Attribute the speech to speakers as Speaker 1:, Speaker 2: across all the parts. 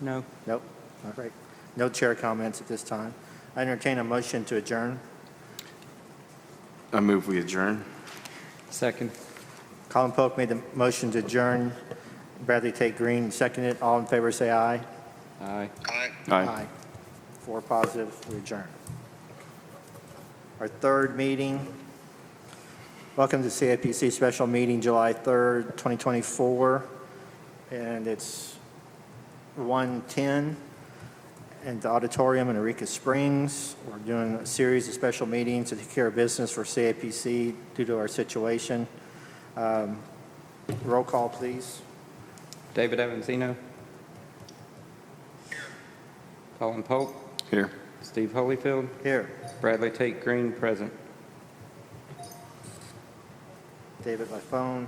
Speaker 1: No.
Speaker 2: Nope, all right. No chair comments at this time. I entertain a motion to adjourn.
Speaker 3: I move we adjourn.
Speaker 1: Second.
Speaker 2: Colin Polk made the motion to adjourn. Bradley Tate Green seconded. All in favor, say aye.
Speaker 1: Aye.
Speaker 3: Aye.
Speaker 2: Four positive, we adjourn. Our third meeting. Welcome to CIPC Special Meeting, July 3rd, 2024. And it's 1:10 in the auditorium in Eureka Springs. We're doing a series of special meetings to take care of business for CIPC due to our situation. Um, Roll call, please.
Speaker 1: David Evanzino. Colin Pope.
Speaker 3: Here.
Speaker 1: Steve Holyfield.
Speaker 2: Here,
Speaker 1: Bradley Tate Green, present.
Speaker 2: David by phone.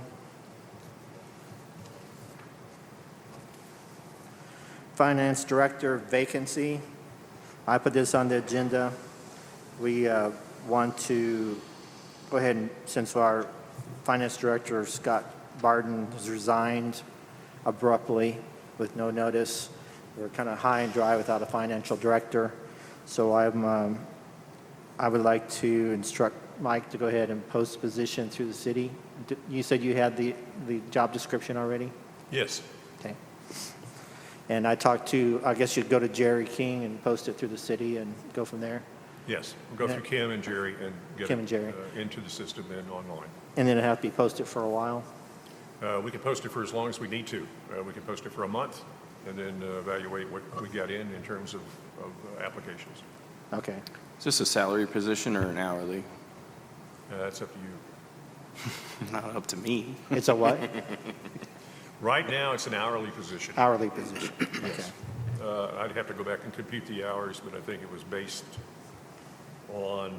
Speaker 2: Finance Director vacancy. I put this on the agenda. We uh, want to go ahead and, since our Finance Director, Scott Barden, has resigned abruptly with no notice, we're kind of high and dry without a Financial Director. So I'm, um, I would like to instruct Mike to go ahead and post the position through the city. D- You said you had the, the job description already?
Speaker 4: Yes.
Speaker 2: Okay. And I talked to, I guess you'd go to Jerry King and post it through the city and go from there?
Speaker 4: Yes, we'll go through Kim and Jerry and get
Speaker 2: Kim
Speaker 4: it,
Speaker 2: and Jerry.
Speaker 4: uh, into the system and online.
Speaker 2: And then it'd have to be posted for a while?
Speaker 4: Uh, We can post it for as long as we need to. Uh, We can post it for a month and then uh, evaluate what we got in in terms of of, uh, applications.
Speaker 2: Okay.
Speaker 3: Is this a salary position or an hourly?
Speaker 4: Uh, That's up to you.
Speaker 3: Not up to me.
Speaker 2: It's a what?
Speaker 4: Right now, it's an hourly position.
Speaker 2: Hourly position? Okay.
Speaker 4: Uh, I'd have to go back and compute the hours, but I think it was based on,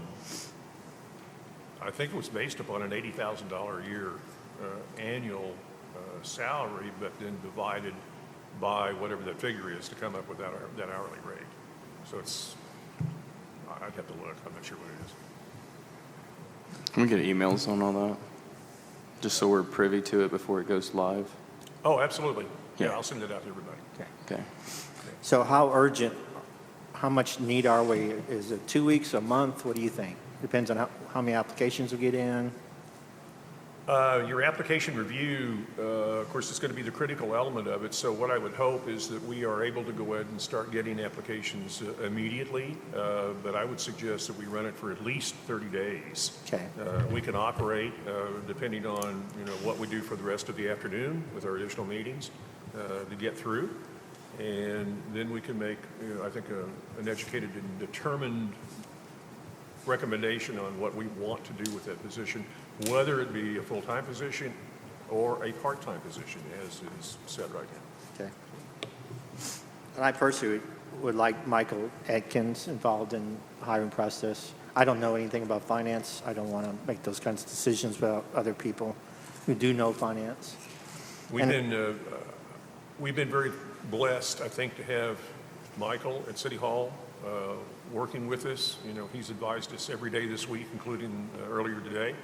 Speaker 4: I think it was based upon an $80,000 a year uh, annual uh, salary, but then divided by whatever that figure is to come up with that hour- that hourly rate. So it's, I- I'd have to look, I'm not sure what it is.
Speaker 3: Can we get emails on all that? Just so we're privy to it before it goes live?
Speaker 4: Oh, absolutely. Yeah,
Speaker 3: Yeah.
Speaker 4: I'll send it out to everybody.
Speaker 3: Okay.
Speaker 2: So how urgent, how much need are we? Is it two weeks, a month? What do you think? Depends on how, how many applications we get in?
Speaker 4: Uh, Your application review, uh, of course, is going to be the critical element of it, so what I would hope is that we are able to go ahead and start getting applications uh, immediately, uh, but I would suggest that we run it for at least 30 days.
Speaker 2: Okay.
Speaker 4: Uh, We can operate uh, depending on, you know, what we do for the rest of the afternoon with our additional meetings uh, to get through, and then we can make, you know, I think, a- an educated and determined recommendation on what we want to do with that position, whether it be a full-time position or a part-time position, as is said right now.
Speaker 2: Okay. And I personally would like Michael Atkins involved in hiring process. I don't know anything about finance. I don't want to make those kinds of decisions without other people who do know finance.
Speaker 4: We've
Speaker 2: And-
Speaker 4: been, uh, uh, we've been very blessed, I think, to have Michael at City Hall uh, working with us. You know, he's advised us every day this week, including uh, earlier today,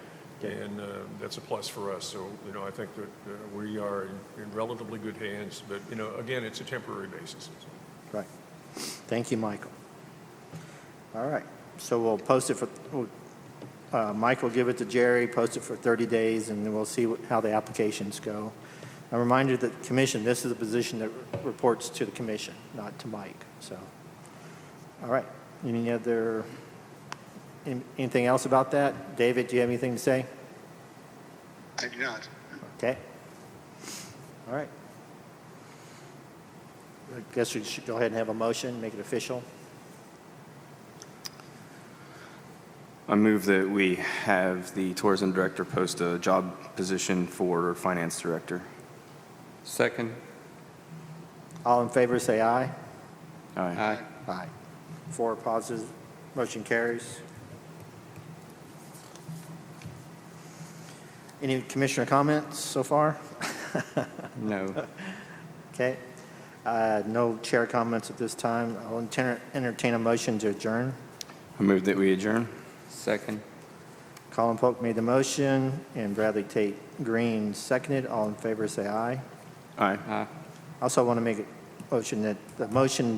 Speaker 4: and uh, that's a plus for us. So, you know, I think that uh, we are in- in relatively good hands, but, you know, again, it's a temporary basis.
Speaker 2: Right. Thank you, Michael. All right. So we'll post it for, we'll- uh, Mike will give it to Jerry, post it for 30 days, and then we'll see what- how the applications go. A reminder that commission, this is a position that reports to the commission, not to Mike, so. All right. Any other, an- anything else about that? David, do you have anything to say?
Speaker 5: I do not.
Speaker 2: Okay. All right. I guess we should go ahead and have a motion, make it official.
Speaker 3: I move that we have the tourism director post a job position for finance director.
Speaker 1: Second.
Speaker 2: All in favor, say aye.
Speaker 3: Aye.
Speaker 1: Aye.
Speaker 2: Aye. Four positive, motion carries. Any commissioner comments so far?
Speaker 3: No.
Speaker 2: Okay. Uh, No chair comments at this time. I'll enter- entertain a motion to adjourn.
Speaker 3: I move that we adjourn.
Speaker 1: Second.
Speaker 2: Colin Polk made the motion, and Bradley Tate Green seconded. All in favor, say aye.
Speaker 3: Aye.
Speaker 1: Aye.
Speaker 2: Also want to make it motion that, the motion